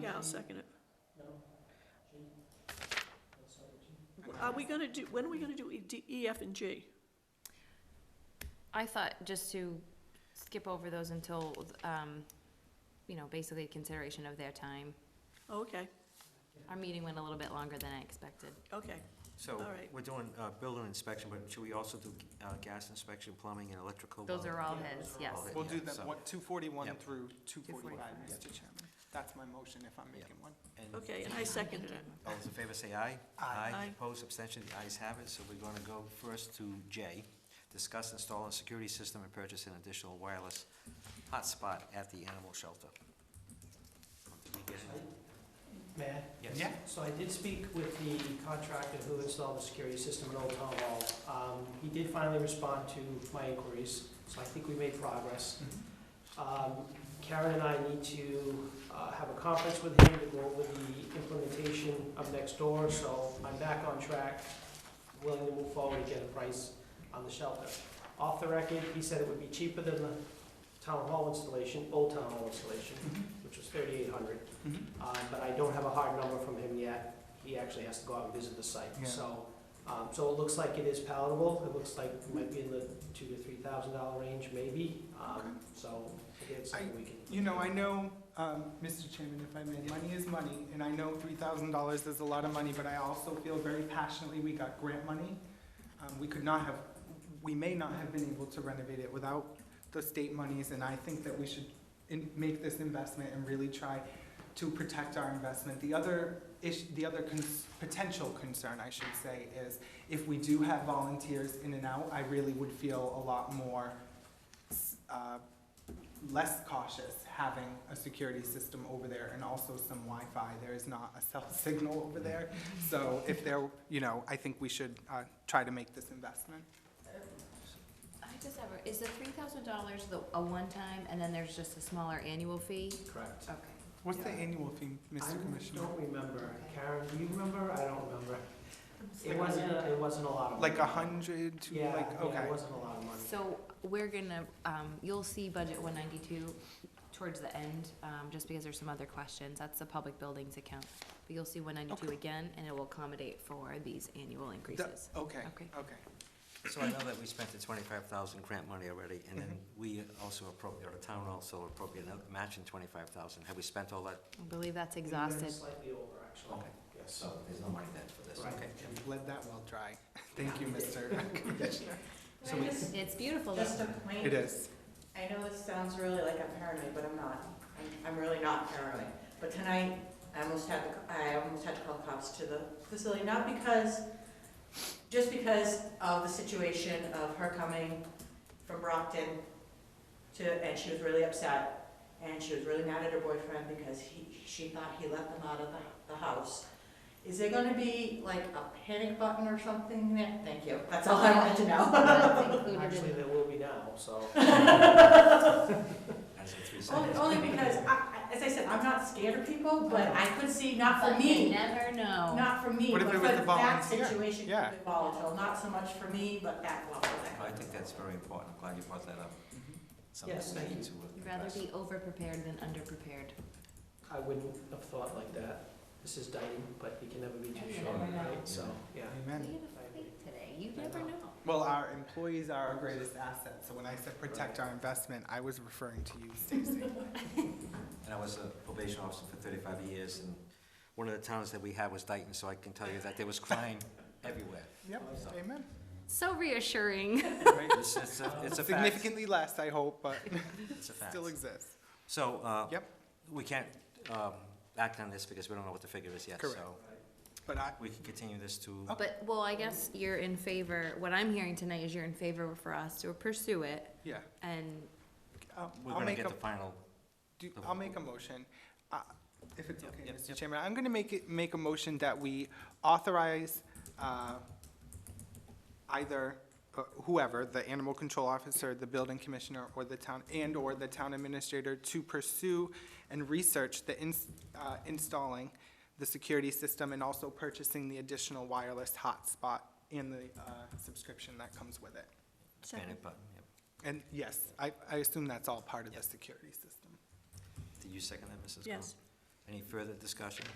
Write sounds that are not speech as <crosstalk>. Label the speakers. Speaker 1: Yeah, I'll second it.
Speaker 2: I'm
Speaker 3: Uh,
Speaker 1: Are we gonna do, when are we gonna do E, D, E, F, and G?
Speaker 2: I thought just to skip over those until, um, you know, basically consideration of their time.
Speaker 1: Oh, Okay,
Speaker 2: Our meeting went a little bit longer than I expected.
Speaker 1: okay.
Speaker 4: So,
Speaker 1: All right.
Speaker 4: we're doing uh, building inspection, but should we also do uh, gas inspection, plumbing, and electrical?
Speaker 2: Those
Speaker 4: while-
Speaker 2: are all his, yes.
Speaker 4: All his.
Speaker 3: We'll do
Speaker 4: Yeah, so-
Speaker 3: that, what, two forty-one
Speaker 4: Yep.
Speaker 3: through two forty-five,
Speaker 2: 245.
Speaker 3: Mr. Chairman. That's my motion if I'm
Speaker 4: Yep.
Speaker 3: making one.
Speaker 4: and
Speaker 1: Okay, and I seconded it.
Speaker 4: All those in favor say aye.
Speaker 3: Aye.
Speaker 1: Aye.
Speaker 4: Opposed, abstention, the ayes have it. So we're going to go first to J, discuss installing a security system and purchase an additional wireless hotspot at the animal shelter. Did we get it?
Speaker 5: Matt?
Speaker 4: Yes.
Speaker 3: Yeah.
Speaker 5: So I did speak with the contractor who installed the security system at Old Town Hall. Um, He did finally respond to my inquiries, so I think we made progress.
Speaker 3: Mm-hmm.
Speaker 5: Um, Karen and I need to uh, have a conference with him to go over the implementation of next door. so I'm back on track, willing to move forward and get a price on the shelter. Off the record, he said it would be cheaper than the town hall installation, Old Town Hall installation,
Speaker 3: Mm-hmm.
Speaker 5: which was thirty-eight hundred.
Speaker 3: Mhm.
Speaker 5: Uh, but I don't have a hard number from him yet. He actually has to go out and visit the site.
Speaker 3: Yeah.
Speaker 5: So, um, so it looks like it is palatable. It looks like it might be in the two to three thousand dollar range, maybe.
Speaker 3: Okay.
Speaker 5: Um, so again, it's something we can.
Speaker 3: You know, I know, um, Mr. Chairman, if I may, money is money, and I know three thousand dollars is a lot of money, but I also feel very passionately, we got grant money. Um, we could not have, we may not have been able to renovate it without the state monies, and I think that we should in, make this investment and really try to protect our investment. The other ish, the other cons- potential concern, I should say, is if we do have volunteers in and out, I really would feel a lot more, s- uh, less cautious having a security system over there and also some Wi-Fi. There is not a cell <laughs> signal over there. So if there, you know, I think we should uh, try to make this investment.
Speaker 2: I just have, a- is the three thousand dollars the, a one-time, and then there's just a smaller annual fee?
Speaker 5: Correct.
Speaker 2: Okay.
Speaker 3: What's the
Speaker 5: Yeah.
Speaker 3: annual fee, Mr.
Speaker 5: I
Speaker 3: Commissioner?
Speaker 5: don't remember. Karen, do you remember? I don't remember. It
Speaker 2: Like-
Speaker 5: wasn't, a- it wasn't a lot of.
Speaker 3: Like a
Speaker 5: money.
Speaker 3: hundred to
Speaker 5: Yeah,
Speaker 3: like,
Speaker 5: yeah,
Speaker 3: okay.
Speaker 5: it wasn't a lot of money.
Speaker 2: So we're gonna, um, you'll see budget one ninety-two towards the end, um, just because there's some other questions. That's the public buildings account. But you'll see one ninety-two
Speaker 3: Okay.
Speaker 2: again, and it will accommodate for these annual
Speaker 3: The-
Speaker 2: increases.
Speaker 3: Okay,
Speaker 2: Okay.
Speaker 3: okay.
Speaker 4: So I know that we spent the twenty-five thousand grant money already, and then we also appropriate, or the town also appropriate another matching twenty-five thousand. Have we spent all that?
Speaker 2: I believe that's
Speaker 5: We were
Speaker 2: exhausted.
Speaker 5: Slightly over, actually.
Speaker 4: Okay.
Speaker 5: Yes,
Speaker 4: So
Speaker 5: so.
Speaker 4: there's no money then for this,
Speaker 5: Right.
Speaker 4: okay.
Speaker 3: We've Let that well dry. <laughs> Thank you,
Speaker 5: <laughs>
Speaker 3: Mr. Commissioner. So we-
Speaker 2: It's beautiful.
Speaker 6: Just a
Speaker 3: It
Speaker 6: point,
Speaker 3: is.
Speaker 6: I know this sounds really like I'm paranoid, but I'm not. I'm- I'm really not paranoid. But tonight, I almost had, to- I almost had to call cops to the facility, not because, just because of the situation of her coming from Brockton to, and she was really upset, and she was really mad at her boyfriend because he, she thought he let them out of the, the house. Is there gonna be like a panic button or something there? Thank you, that's all I wanted to know.
Speaker 2: That's included in-
Speaker 5: Actually, there will be now, so.
Speaker 4: As of three
Speaker 6: Only,
Speaker 4: seconds.
Speaker 6: only because, I, I- as I said, I'm not scared of people, but I could see, not for
Speaker 2: But you
Speaker 6: me,
Speaker 2: never know.
Speaker 6: not for me,
Speaker 3: What
Speaker 6: but
Speaker 3: if
Speaker 6: for
Speaker 3: it was a
Speaker 6: that
Speaker 3: volunteer?
Speaker 6: situation,
Speaker 3: Yeah.
Speaker 6: could be volatile, not so much for me, but that volatile.
Speaker 4: I think that's very important. I'm glad you brought that up. Something
Speaker 5: Yes,
Speaker 4: we
Speaker 5: thank
Speaker 4: need
Speaker 5: you.
Speaker 4: to
Speaker 2: You'd rather
Speaker 4: address.
Speaker 2: be over-prepared than under-prepared.
Speaker 5: I wouldn't have thought like that. This is dieting, but you can never be too
Speaker 2: You
Speaker 5: sure,
Speaker 2: never know.
Speaker 5: right? So, yeah.
Speaker 2: We
Speaker 3: Amen.
Speaker 2: had a fight today. You never know.
Speaker 3: Well, our employees are our greatest asset, so when I said protect our investment, I was referring to you, Stacy.
Speaker 4: And I was a probation officer for thirty-five years, and one of the towns that we had was Dayton, so I can tell you that there was <laughs> crime everywhere.
Speaker 3: Yep, amen.
Speaker 2: So reassuring. <laughs>
Speaker 3: Right.
Speaker 4: It's, it's a, it's a fact.
Speaker 3: Significantly less, I hope,
Speaker 4: <laughs>
Speaker 3: but
Speaker 4: It's a fact.
Speaker 3: still exists.
Speaker 4: So, uh,
Speaker 3: Yep.
Speaker 4: we can't, um, act on this because we don't know what the figure is yet,
Speaker 3: Correct.
Speaker 4: so
Speaker 3: But I,
Speaker 4: we can continue this to,
Speaker 3: Okay.
Speaker 2: But, well, I guess you're in favor, what I'm hearing tonight is you're in favor for us to pursue it
Speaker 3: yeah,
Speaker 2: and
Speaker 3: I'll-
Speaker 4: we're
Speaker 3: I'll
Speaker 4: gonna
Speaker 3: make
Speaker 4: get
Speaker 3: a,
Speaker 4: the final,
Speaker 3: do-
Speaker 4: the-
Speaker 3: I'll make a motion. Uh, If it's
Speaker 4: Yep,
Speaker 3: okay,
Speaker 4: yep,
Speaker 3: Mr.
Speaker 4: yep.
Speaker 3: Chairman, I'm gonna make it, make a motion that we authorize uh, either uh, whoever, the animal control officer, the building commissioner, or the town, and/or the town administrator to pursue and research the ins- uh, installing the security system and also purchasing the additional wireless hotspot and the uh, subscription that comes with it.
Speaker 4: panic button. Yep.
Speaker 3: And yes, I, I assume that's all part of the security system.
Speaker 4: Did you second that, Mrs. Cohen?
Speaker 1: Yes.
Speaker 4: Any further discussion?